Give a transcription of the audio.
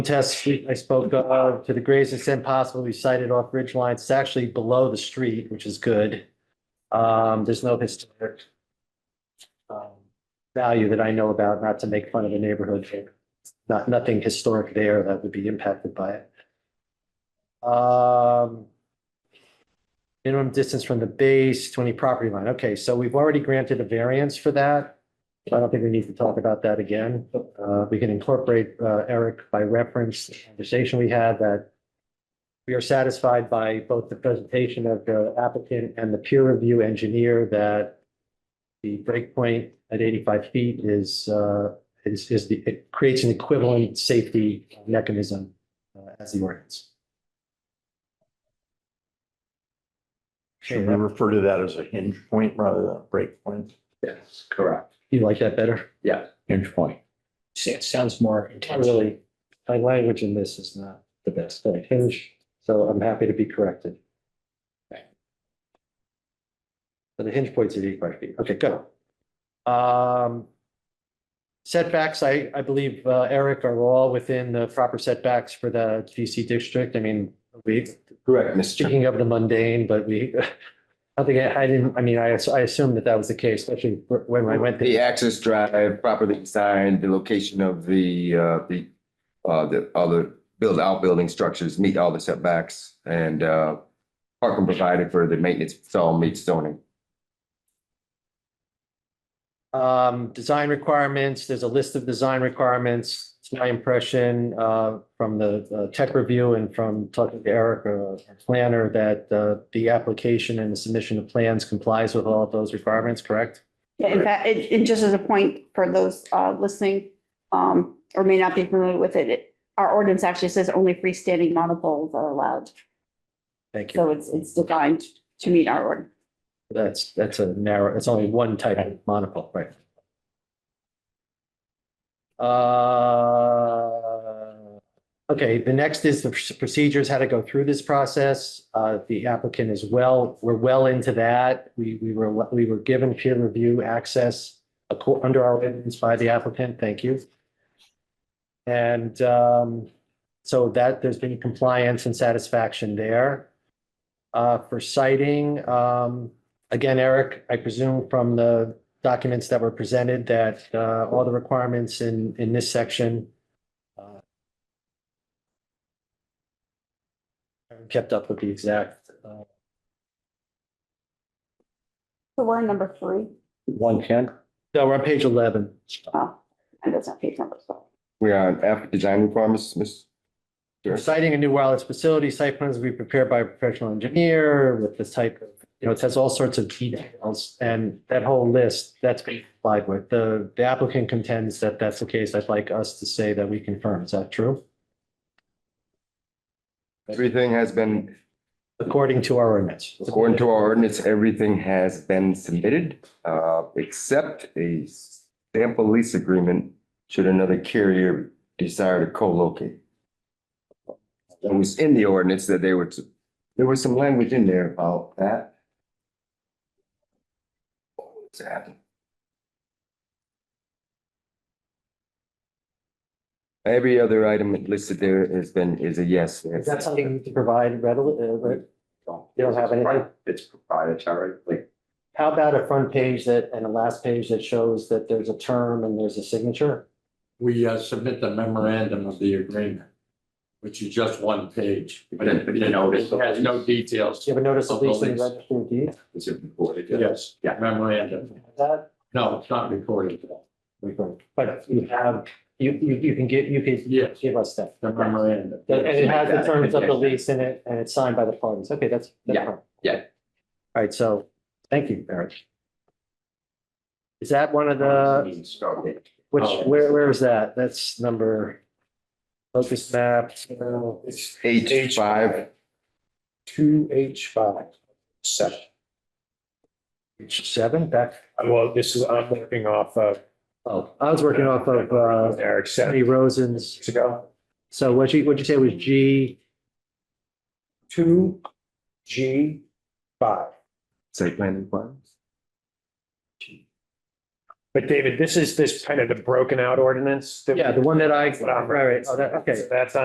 test we- I spoke of, to the greatest extent possible, we sighted off ridge lines. It's actually below the street, which is good. Um, there's no historic um, value that I know about, not to make fun of the neighborhood. but Not, nothing historic there that would be impacted by it. Um, minimum distance from the base to any property line. Okay, so we've already granted a variance for that. I don't think we need to talk about that again. Uh, we can incorporate, uh, Eric by reference, the conversation we had that we are satisfied by both the presentation of the applicant and the peer review engineer that the breakpoint at eighty-five feet is, uh, is, is the, it creates an equivalent safety mechanism uh, as the ordinance. Should we refer to that as a hinge point rather than a break point? Yes, correct. You like that better? Yeah. Hinge point. It sounds more intense. Really, my language in this is not the best. I hinge, so I'm happy to be corrected. Okay. So the hinge points at eighty-five feet. Okay, go. Um, setbacks, I, I believe, uh, Eric, are all within the proper setbacks for the GC district. I mean, we, Correct, Mr. speaking of the mundane, but we, I think I, I didn't, I mean, I, I assumed that that was the case, especially when I went there. The access drive properly signed, the location of the, uh, the, uh, the other build outbuilding structures meet all the setbacks and, uh, parking provided for the maintenance, it's all meets zoning. Um, design requirements, there's a list of design requirements. It's my impression, uh, from the uh, tech review and from talking to Eric, uh, our planner, that, uh, the application and the submission of plans complies with all of those requirements, correct? Yeah, in fact, it, it just as a point for those, uh, listening, um, or may not be familiar with it, it, our ordinance actually says only freestanding monopoles are allowed. Thank you. So it's, it's designed to meet our order. That's, that's a narrow, it's only one type of monocle, right? Uh, okay, the next is the procedures, how to go through this process. Uh, the applicant is well, we're well into that. We, we were, we were given peer review access acco- under our ordinance by the applicant, thank you. And, um, so that, there's been compliance and satisfaction there. Uh, for citing, um, again, Eric, I presume from the documents that were presented that, uh, all the requirements in, in this section uh, are kept up with the exact, uh, So we're in number three. One ten? no, we're on page eleven. Oh, and that's not page number, so. We are on F, design requirements, Ms. We're Sure. Citing a new wireless facility, site plans will be prepared by a professional engineer with this type of, you know, it has all sorts of details. And that whole list, that's been complied with. The, the applicant contends that that's the case. I'd like us to say that we confirm. Is that true? Everything has been, According to our ordinance. according to our ordinance, everything has been submitted, uh, except a sample lease agreement should another carrier desire to co-locate. That was in the ordinance that they were, to- there was some language in there about that. What's happening? Every other item listed there has been, is a yes. Is that something you can provide readily? uh, re- You don't have anything? It's proprietary, like. How about a front page that, and a last page that shows that there's a term and there's a signature? we uh, submit the memorandum of the agreement, which is just one page, but it But you know, it has no details. Do you have a notice of lease in the Of the lease. registry of deeds? It's recorded. Yes, Yeah. uh, memorandum. That, No, it's not recorded. we can- but you have, you, you, you can give, you can Yes, give us that. the memorandum. And it has the Yeah. terms of the lease in it and it's signed by the parties. Okay, that's. that's Yeah, fine. yeah. All right, so, thank you, Eric. Is that one of the? Which, Oh. where, where is that? That's number, focus map. uh, It's H five. two H five, seven. Page seven, back, Well, this is, I'm working off of oh, I was working off of, uh, Eric said Tony Rosen's. years ago, So what you, what'd you say was G? two G five. Site plan requirements. But David, this is this kind of the broken out ordinance. that we- Yeah, the one that I, That's what I'm- right, right. Oh, that- okay. So That's